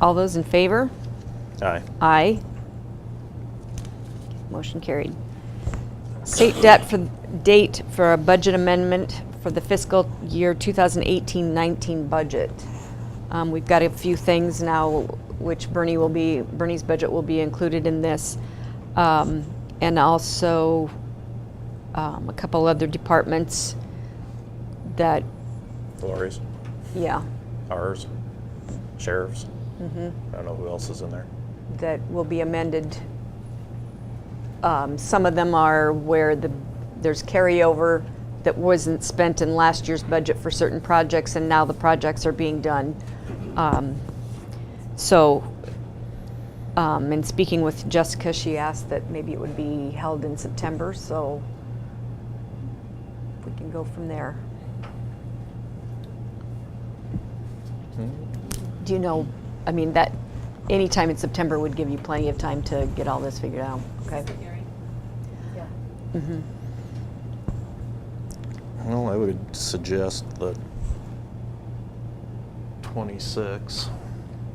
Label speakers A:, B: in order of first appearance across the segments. A: All those in favor?
B: Aye.
A: Aye. Motion carried. State debt for, date for a budget amendment for the fiscal year 2018-19 budget. Um, We've got a few things now, which Bernie will be, Bernie's budget will be included in this. Um, And also um, a couple other departments that,
B: Lori's,
A: yeah,
B: ours, sheriff's. Mm-hmm. I don't know who else is in there.
A: that will be amended. Um, Some of them are where the, there's carryover that wasn't spent in last year's budget for certain projects, and now the projects are being done. Um, So, um, in speaking with Jessica, she asked that maybe it would be held in September, so we can go from there. Do you know, I mean, that, any time in September would give you plenty of time to get all this figured out, okay?
B: Well, I would suggest that twenty-six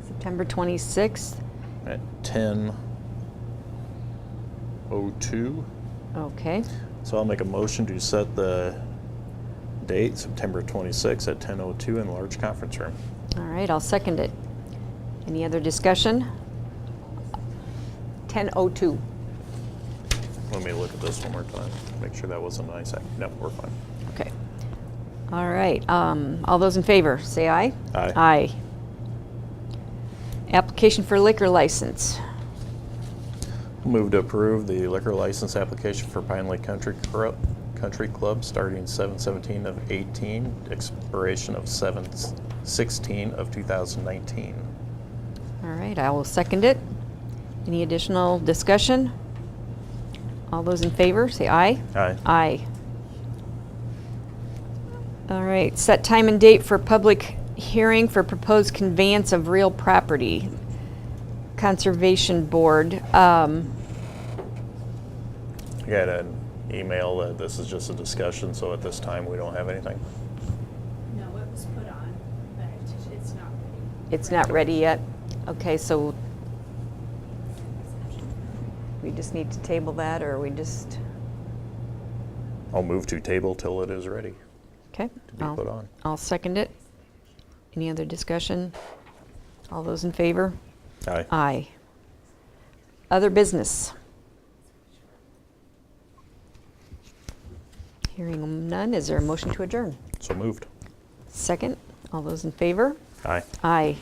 A: September 26th?
B: at ten oh two.
A: Okay,
B: So I'll make a motion to set the date, September twenty-sixth at ten oh two in large conference room.
A: all right, I'll second it. Any other discussion? 10:02.
B: Let me look at this one more time, make sure that wasn't an ice act. No, we're fine.
A: Okay. All right, um, all those in favor, say aye.
B: Aye.
A: Aye. Application for liquor license.
B: Move to approve the liquor license application for Pine Lake Country Club, Country Club starting seven seventeen of eighteen, expiration of seven sixteen of two thousand nineteen.
A: All right, I will second it. Any additional discussion? All those in favor, say aye.
B: Aye.
A: Aye. All right, set time and date for public hearing for proposed conveyance of real property. Conservation Board, um,
B: I got an email that this is just a discussion, so at this time, we don't have anything.
C: No, it was put on, but it- it's not ready.
A: it's not ready yet. Okay, so we just need to table that, or we just,
B: I'll move to table till it is ready
A: okay?
B: to be
A: I'll-
B: put on.
A: I'll second it. Any other discussion? All those in favor?
B: Aye.
A: Aye. Other business? Hearing none, is there a motion to adjourn?
B: So moved.
A: Second, all those in favor?
B: Aye.
A: Aye.